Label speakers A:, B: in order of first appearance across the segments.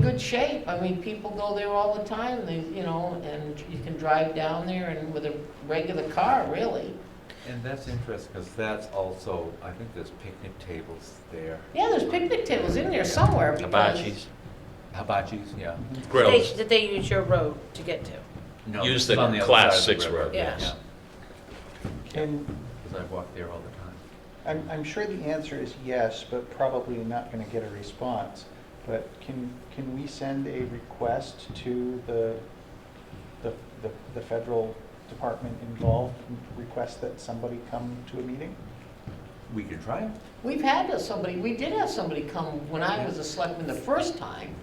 A: good shape. I mean, people go there all the time, they, you know, and you can drive down there and with a regular car, really.
B: And that's interesting, because that's also, I think there's picnic tables there.
A: Yeah, there's picnic tables in there somewhere because.
C: Hibachis,
B: Hibachis, yeah.
D: Grills.
E: They- That they use your road to get to.
B: No,
C: Use
B: it's
C: the
B: on other
C: class
B: side of the
C: six
B: river,
C: road,
E: yes.
F: And
B: Because I walk there all the time.
F: I'm, I'm sure the answer is yes, but probably not going to get a response. But can, can we send a request to the, the, the- the federal department involved, and request that somebody come to a meeting?
B: We can try it.
A: We've had to- somebody, we did have somebody come when I was a selectman the first time,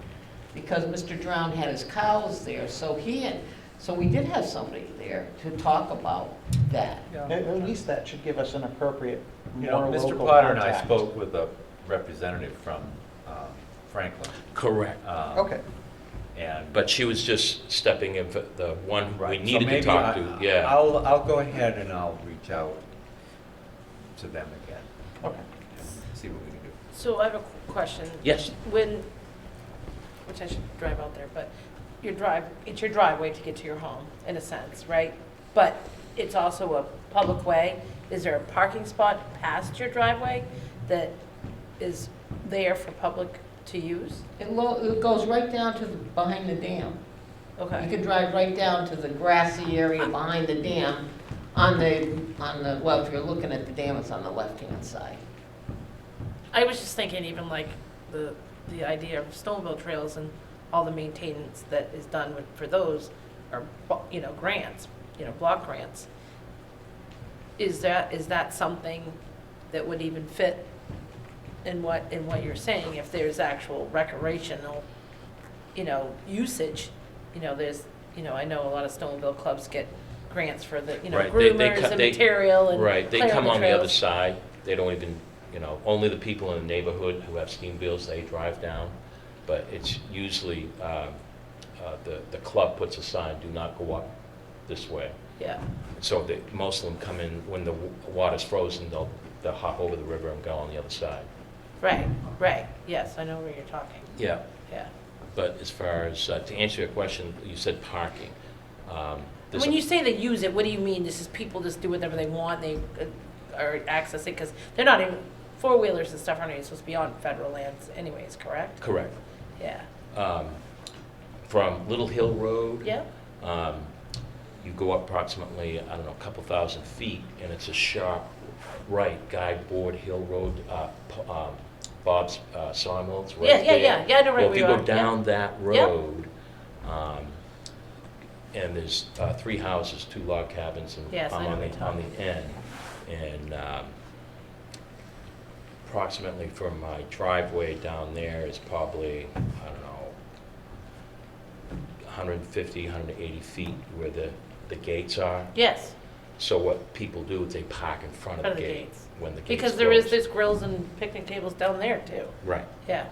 A: because Mr. Drown had his cows there, so he had, so we did have somebody there to talk about that.
F: At, at least that should give us an appropriate,
B: You
F: uh, more
B: know,
F: local
B: Mr. Potter and I
F: contact.
B: spoke with a representative from um, Franklin.
C: correct.
B: um,
F: Okay,
B: And.
C: But she was just stepping in, for the one we
B: Right, so
C: needed to
B: maybe
C: talk
B: I-
C: to, yeah.
B: I'll, I'll go ahead and I'll reach out to them again,
F: okay.
B: see what we can do.
E: So I have a qu- question.
C: Yes,
E: When, which I should drive out there, but your drive, it's your driveway to get to your home, in a sense, right? But it's also a public way. Is there a parking spot past your driveway that is there for public to use?
A: It lo, it goes right down to, the behind the dam. You
E: Okay.
A: can drive right down to the grassy area behind the dam, on the, on the, well, if you're looking at the dam, it's on the left-hand side.
E: I was just thinking even like the, the idea of snowmobile trails and all the maintenance that is done with, for those are, bu- you know, grants, you know, block grants. Is that, is that something that would even fit in what, in what you're saying? If there's actual recreational, you know, usage, you know, there's, you know, I know a lot of snowmobile clubs get grants for the, you know,
C: Right, they- they
E: groomers
C: cut-
E: and
C: they-
E: material and
C: right, they
E: clearing
C: come on the other
E: trails.
C: side, they don't even, you know, only the people in the neighborhood who have steam bills, they drive down. But it's usually, uh, uh, the, the club puts a sign, do not go up this way.
E: Yeah.
C: So they, most of them come in, when the w- water's frozen, they'll, they'll hop over the river and go on the other side.
E: Right, right, yes, I know where you're talking,
C: Yeah.
E: yeah.
C: But as far as, uh, to answer your question, you said parking. Um, there's
E: When
C: a-
E: you say they use it, what do you mean? This is people just do whatever they want, they uh, are accessing, because they're not even, four-wheelers and stuff aren't even supposed to be on federal lands anyways, correct?
C: Correct.
E: Yeah,
C: Um, From Little Hill Road.
E: yeah,
C: um, You go up approximately, I don't know, a couple thousand feet, and it's a sharp right, Guy Board Hill Road, uh, p- um, Bob's uh, Sawmills, right
E: Yeah,
C: there.
E: yeah, yeah. Yeah, I know right
C: Well, if
E: where
C: you
E: you
C: go
E: are. Yeah.
C: down that
E: Yeah.
C: road, um, and there's uh, three houses, two log cabins, and
E: Yes, I
C: I'm
E: know
C: on
E: what
C: the,
E: you're
C: on
E: talking
C: the end. And um, approximately from my driveway down there is probably, I don't know, 150, 180 feet where the, the gates are.
E: yes,
C: So what people do is they park in front
E: Front
C: of the
E: of the
C: gate
E: gates.
C: when the gates
E: because there is,
C: close.
E: there's grills and picnic tables down there too,
C: Right.
E: yeah.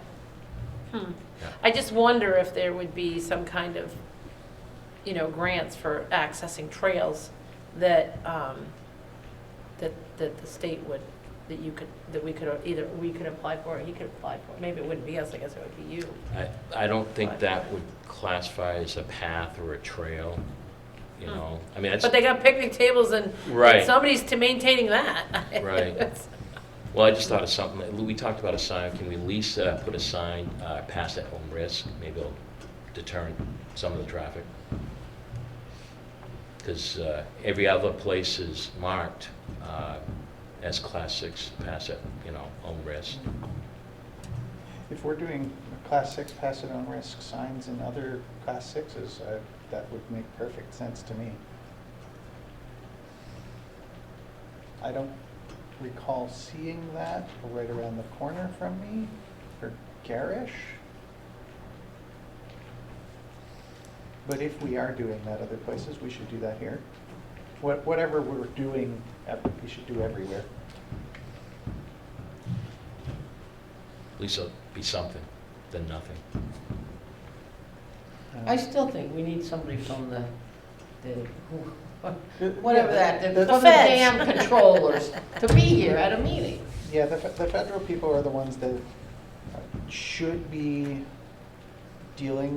E: Hmm.
C: Yeah.
E: I just wonder if there would be some kind of, you know, grants for accessing trails that, um, that, that the state would, that you could, that we could, either we could apply for or he could apply for. Maybe it wouldn't be us, I guess it would be you.
C: I, I don't think that would classify as a path or a trail, you
E: Hmm.
C: know? I mean, that's,
E: But they got picnic tables and
C: Right.
E: somebody's to maintaining that.
C: Right. well, I just thought of something. that- We talked about a sign. Can we at least uh, put a sign uh, past at home risk? Maybe it'll deter some of the traffic. Because every other place is marked uh, as class six pass at, you know, home risk.
F: If we're doing class six pass it on risk signs and other class sixes, uh, that would make perfect sense to me. I don't recall seeing that right around the corner from me, or garish. But if we are doing that other places, we should do that here. What- Whatever we're doing, uh, we should do everywhere.
C: At least it'll be something than nothing.
F: Uh,
A: I still think we need somebody from the, the,
F: Yeah,
A: whatever
F: the-
A: that,
F: the-
A: the- from the dam controllers to be here at a meeting.
F: Yeah, the, fe- the federal people are the ones that should be dealing